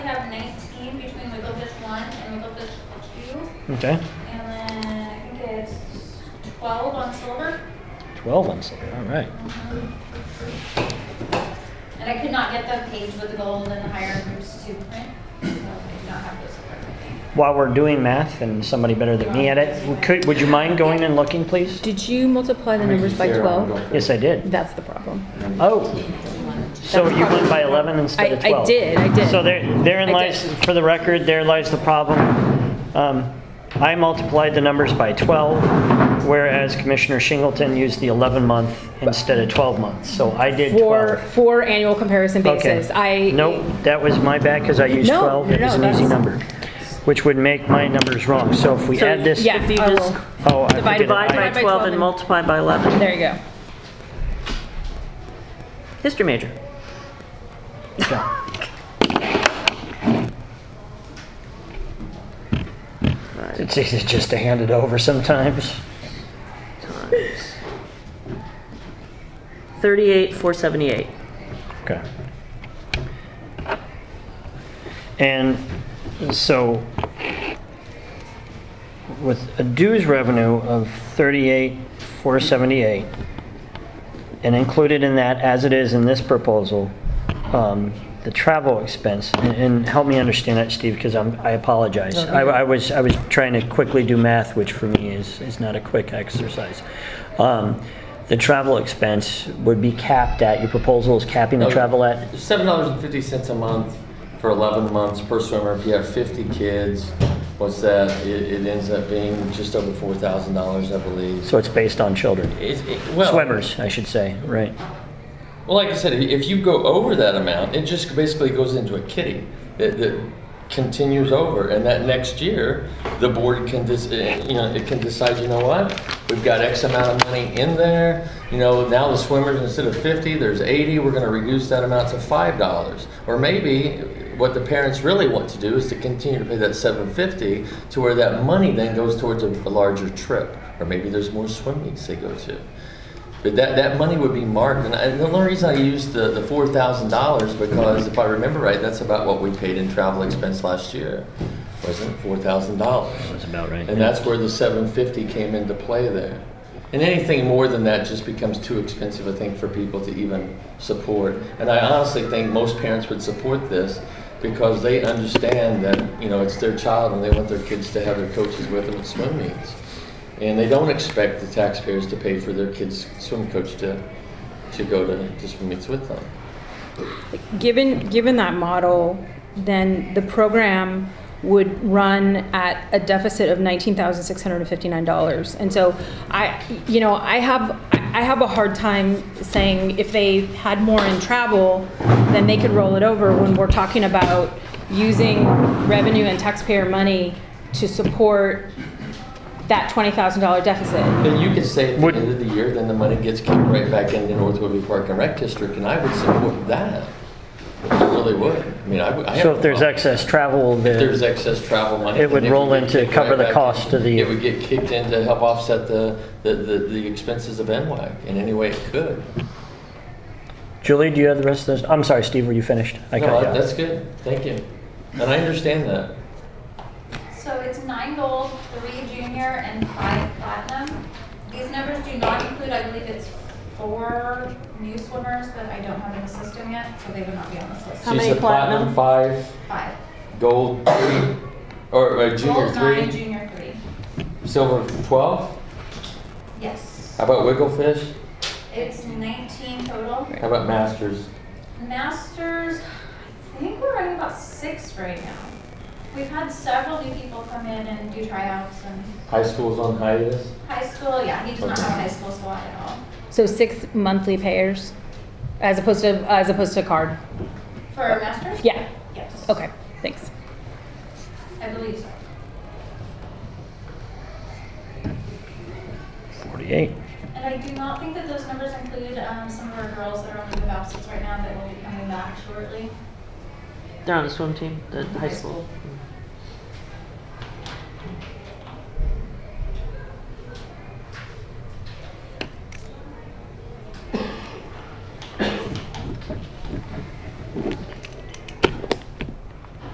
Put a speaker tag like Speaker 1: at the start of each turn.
Speaker 1: nineteen between Wigglebus one and Wigglebus two.
Speaker 2: Okay.
Speaker 1: And then I think it's twelve on silver.
Speaker 2: 12 on silver. All right.
Speaker 1: And I could not get the page with the gold and the higher groups to print, so I did not have those. with me.
Speaker 2: While we're doing math and somebody better than me at it, could, would you mind going and looking, please?
Speaker 3: Did you multiply the numbers by 12?
Speaker 2: Yes, I did.
Speaker 3: That's the problem.
Speaker 2: Oh. So you went by 11 instead
Speaker 3: I,
Speaker 2: of 12.
Speaker 3: I did, I did.
Speaker 2: So there, therein
Speaker 3: I
Speaker 2: lies,
Speaker 3: did.
Speaker 2: for the record, there lies the problem. Um, I multiplied the numbers by 12, whereas Commissioner Shingleton used the 11 month instead of 12 months. So I did
Speaker 3: for,
Speaker 2: 12.
Speaker 3: for annual comparison
Speaker 2: Okay.
Speaker 3: basis. I
Speaker 2: Nope, that was my bad because I used
Speaker 3: No,
Speaker 2: 12. It
Speaker 3: no,
Speaker 2: was an
Speaker 3: no,
Speaker 2: easy
Speaker 3: that's-
Speaker 2: number, which would make my numbers wrong. So if we
Speaker 4: So,
Speaker 2: add this.
Speaker 3: yeah,
Speaker 4: If you
Speaker 3: I
Speaker 4: just
Speaker 3: will.
Speaker 2: Oh, I
Speaker 3: Divide
Speaker 2: forget it.
Speaker 3: by-
Speaker 4: divide
Speaker 2: I-
Speaker 4: by 12 and multiply by 11.
Speaker 3: There you go.
Speaker 4: History major.
Speaker 2: It's easy just to hand it over sometimes.
Speaker 4: 38, 478.
Speaker 2: Okay. And so with a dues revenue of 38,478, and included in that, as it is in this proposal, um, the travel expense, and- and help me understand that, Steve, because I'm, I apologize. I I was, I was trying to quickly do math, which for me is, is not a quick exercise. Um, The travel expense would be capped at, your proposal is capping the
Speaker 5: Okay.
Speaker 2: travel at
Speaker 5: Seven dollars and fifty cents a month for eleven months per swimmer. If you have fifty kids, what's that? It, it ends up being just over four thousand dollars, I believe.
Speaker 2: So it's based on children.
Speaker 5: It's- it- well,
Speaker 2: Swimmers, I should say, right.
Speaker 5: Well, like I said, if you go over that amount, it just basically goes into a kitty that, that continues over, and that next year, the board can dis, eh, you know, it can decide, you know what? We've got X amount of money in there, you know, now the swimmers, instead of fifty, there's eighty, we're gonna reduce that amount to five dollars. Or maybe what the parents really want to do is to continue to pay that seven fifty to where that money then goes towards a, a larger trip, or maybe there's more swim meets they go to. But that, that money would be marked, and I- the only reason I used the, the four thousand dollars, because if I remember right, that's about what we paid in travel expense last year, wasn't it, four thousand dollars?
Speaker 2: That's about right.
Speaker 5: And that's where the seven fifty came into play there. And anything more than that just becomes too expensive, I think, for people to even support. And I honestly think most parents would support this because they understand that, you know, it's their child and they want their kids to have their coaches with them at swim meets. And they don't expect the taxpayers to pay for their kids' swim coach to, to go to, to swim meets with them.
Speaker 3: Given, given that model, then the program would run at a deficit of $19,659. And so I, you know, I have, I have a hard time saying if they had more in travel, then they could roll it over when we're talking about using revenue and taxpayer money to support that $20,000 deficit.
Speaker 5: Then you could say at the
Speaker 2: Would-
Speaker 5: end of the year, then the money gets kicked right back into North Woodbury Park and Rec District, and I would support that. I really would. I mean, I would. I
Speaker 2: So
Speaker 5: have-
Speaker 2: if there's excess travel,
Speaker 5: If there's
Speaker 2: the,
Speaker 5: excess travel money.
Speaker 2: It would
Speaker 5: then
Speaker 2: roll
Speaker 5: get
Speaker 2: in to
Speaker 5: kicked
Speaker 2: cover
Speaker 5: right
Speaker 2: the
Speaker 5: back
Speaker 2: cost
Speaker 5: in.
Speaker 2: of the-
Speaker 5: It would get kicked in to help offset the, the, the the expenses of NWAC in any way it could.
Speaker 2: Julie, do you have the rest of those? I'm sorry, Steve, were you finished? I
Speaker 5: No,
Speaker 2: cut you
Speaker 5: I-
Speaker 2: off.
Speaker 5: that's good. Thank you. And I understand that.
Speaker 1: So it's nine gold, three junior, and five platinum. These numbers do not include, I believe it's four new swimmers, but I don't have in the system yet, so they would not be on this list.
Speaker 4: How many
Speaker 5: She's the platinum
Speaker 4: platinum?
Speaker 5: five,
Speaker 1: Five.
Speaker 5: gold three, or uh, junior
Speaker 1: Gold nine,
Speaker 5: three,
Speaker 1: junior three.
Speaker 5: silver twelve.
Speaker 1: Yes.
Speaker 5: How about Wigglefish?
Speaker 1: It's nineteen total.
Speaker 5: How about Masters?
Speaker 1: Masters, I think we're running about six right now. We've had several new people come in and do tryouts and
Speaker 5: High school's on hiatus.
Speaker 1: high school, yeah, he does not have a high school squad at all.
Speaker 3: So six monthly payers as opposed to, as opposed to card?
Speaker 1: For a masters?
Speaker 3: Yeah,
Speaker 1: Yes.
Speaker 3: okay, thanks.
Speaker 1: I believe so.
Speaker 2: 48.
Speaker 1: And I do not think that those numbers include um, some of our girls that are on leave of absence right now that will be coming back shortly.
Speaker 4: They're on the swim team, the high school.